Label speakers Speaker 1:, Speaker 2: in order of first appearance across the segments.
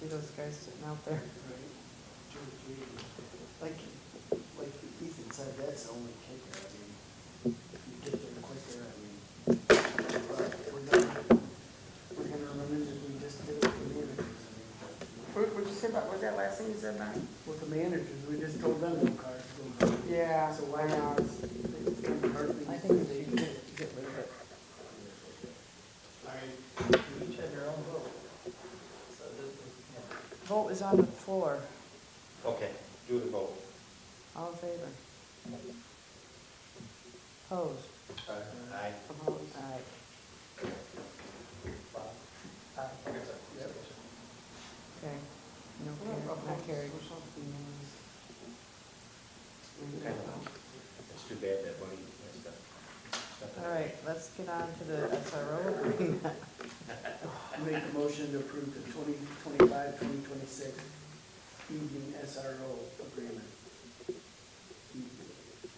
Speaker 1: see those guys sitting out there.
Speaker 2: Like, like Ethan said, that's the only kicker, I mean, if you get there quicker, I mean, but we're gonna, we're gonna run into, we just did it with the managers, I mean.
Speaker 3: What, what'd you say about, was that last thing you said, Mike?
Speaker 2: With the managers, we just told them no cars. no cars.
Speaker 3: Yeah,
Speaker 2: So why not, it's gonna be hard for
Speaker 1: I
Speaker 2: you to
Speaker 1: think
Speaker 2: do.
Speaker 1: they should get get rid of it.
Speaker 4: Larry, you each have your own vote. So this is, yeah.
Speaker 1: Vote is on the floor.
Speaker 4: Okay, do the vote.
Speaker 1: All in favor? Opposed?
Speaker 4: Aye.
Speaker 1: Opposed, aye.
Speaker 4: Bob? Aye. Okay, so, yeah.
Speaker 1: Okay. No, carried. not carried.
Speaker 4: It's too bad that money messed up.
Speaker 1: All right, let's get on to the SRO agreement.
Speaker 2: Make a motion to approve the 2025-2026 evening SRO agreement.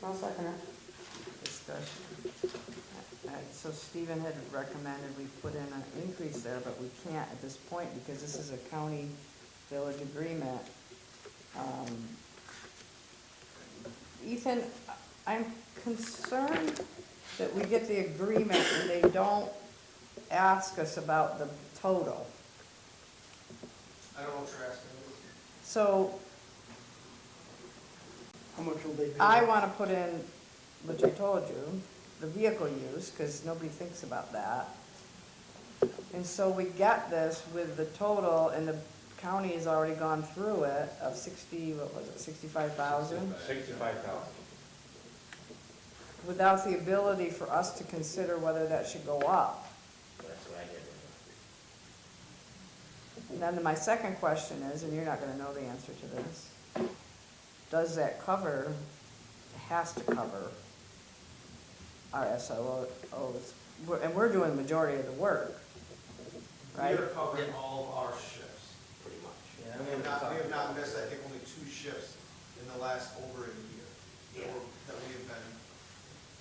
Speaker 3: I'll second it.
Speaker 1: Discussion. All right, So Stephen had recommended we put in an increase there, but we can't at this point because this is a county village agreement. Um, Ethan, I'm concerned that we get the agreement and they don't ask us about the total.
Speaker 4: I don't know what you're asking.
Speaker 1: So
Speaker 2: How much will they pay?
Speaker 1: I want to put in, which I told you, the vehicle use, because nobody thinks about that. And so we got this with the total, and the county has already gone through it, of sixty, what was it, sixty-five thousand?
Speaker 4: Sixty-five thousand.
Speaker 1: Without the ability for us to consider whether that should go up.
Speaker 4: That's what I get.
Speaker 1: And then my second question is, and you're not gonna know the answer to this, does that cover, has to cover our SROs? We're- And we're doing the majority of the work, right?
Speaker 5: We are covering all of our shifts.
Speaker 4: Pretty much.
Speaker 5: We have not, we have not missed, I think, only two shifts in the last over a year that we're, that we have been,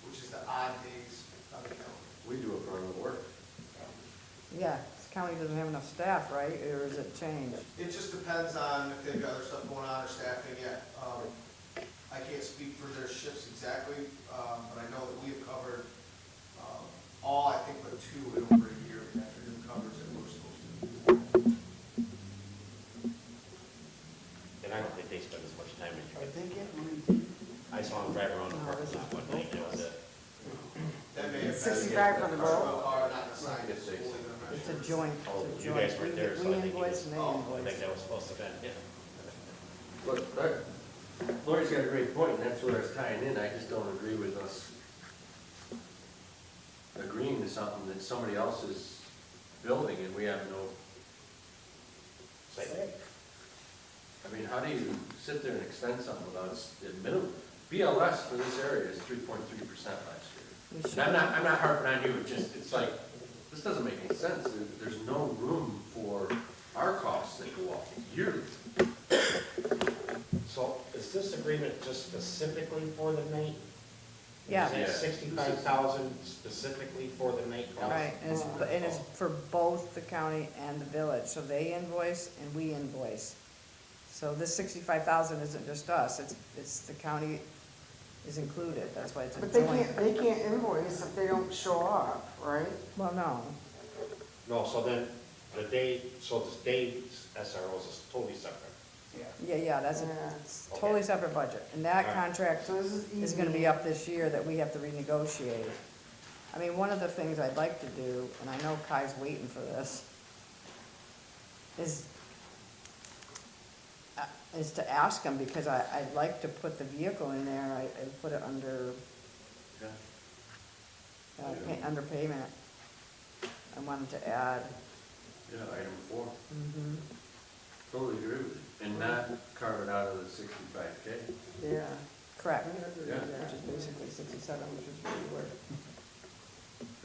Speaker 5: which is the odd days on the calendar.
Speaker 6: We do a ton of work.
Speaker 1: Yeah, this county doesn't have enough staff, right, or is it changed?
Speaker 5: It just depends on if they've got other stuff going on or staffing yet. Um, I can't speak for their shifts exactly, um, but I know that we have covered, um, all, I think, but two in over a year, we actually have covered that we're supposed to.
Speaker 4: And I don't think they spend as much time in
Speaker 2: Are
Speaker 4: it.
Speaker 2: they getting repaid?
Speaker 4: I saw them drive around the parking lot one night, that was it.
Speaker 5: That may have been.
Speaker 1: 65 for the vote.
Speaker 5: Are not assigned, it's only I'm not
Speaker 1: It's a
Speaker 5: sure.
Speaker 1: joint,
Speaker 4: Oh,
Speaker 1: it's a
Speaker 4: you
Speaker 1: joint.
Speaker 4: guys weren't
Speaker 1: We-
Speaker 4: there, so I
Speaker 1: We
Speaker 4: think you
Speaker 1: invoice and they
Speaker 5: Oh,
Speaker 4: I
Speaker 1: invoice.
Speaker 4: think that was supposed to have been, yeah.
Speaker 6: Look, that- Lori's got a great point, and that's where it's tying in, I just don't agree with us agreeing to something that somebody else is building and we have no,
Speaker 4: Site-
Speaker 6: I mean, how do you sit there and extend something without s- the minimum? BLS for this area is three point three percent last year.
Speaker 1: We
Speaker 6: And I'm
Speaker 1: should-
Speaker 6: not, I'm not harping on you, it's just, it's like, this doesn't make any sense, There- there's no room for our costs that go up yearly.
Speaker 4: So is this agreement just specifically for the night?
Speaker 1: Yeah.
Speaker 4: Is that sixty-five thousand specifically for the night? cost?
Speaker 1: Right, and it's, and it's for both the county and the village, so they invoice and we invoice. So this sixty-five thousand isn't just us, it's, it's the county is included, that's why it's a
Speaker 3: But they
Speaker 1: joint.
Speaker 3: can't, they can't invoice if they don't show up, right?
Speaker 1: Well, no,
Speaker 4: No, so then, the day, so the day's SROs is totally separate.
Speaker 1: yeah, yeah, that's a
Speaker 3: Yeah.
Speaker 1: it's totally separate budget, and that
Speaker 4: Alright.
Speaker 1: contract
Speaker 3: So this is easy.
Speaker 1: is gonna be up this year that we have to renegotiate. I mean, one of the things I'd like to do, and I know Kai's waiting for this, is, uh, is to ask him, because I, I'd like to put the vehicle in there, I, I put it under,
Speaker 6: Yeah.
Speaker 1: uh, pay, under payment. I wanted to add.
Speaker 6: Yeah, item four. Totally agree with you. And not carve it out of the sixty-five K.
Speaker 3: Yeah.
Speaker 1: Correct,
Speaker 6: Yeah.
Speaker 1: which is basically sixty-seven, which is where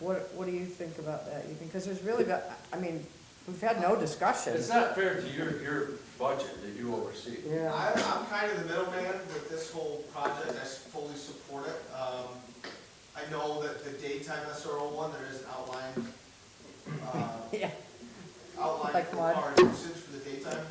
Speaker 1: we were. What, what do you think about that, Ethan? Because there's really, got- I mean, we've had no discussion.
Speaker 6: It's not fair to your, your budget that you oversee.
Speaker 3: Yeah.
Speaker 5: I'm, I'm kind of the middleman with this whole project, I s- fully support it. Um, I know that the daytime SRO one, there is an outline, uh,
Speaker 1: Yeah.
Speaker 5: outline
Speaker 1: Like
Speaker 5: for
Speaker 1: what?
Speaker 5: our usage for the daytime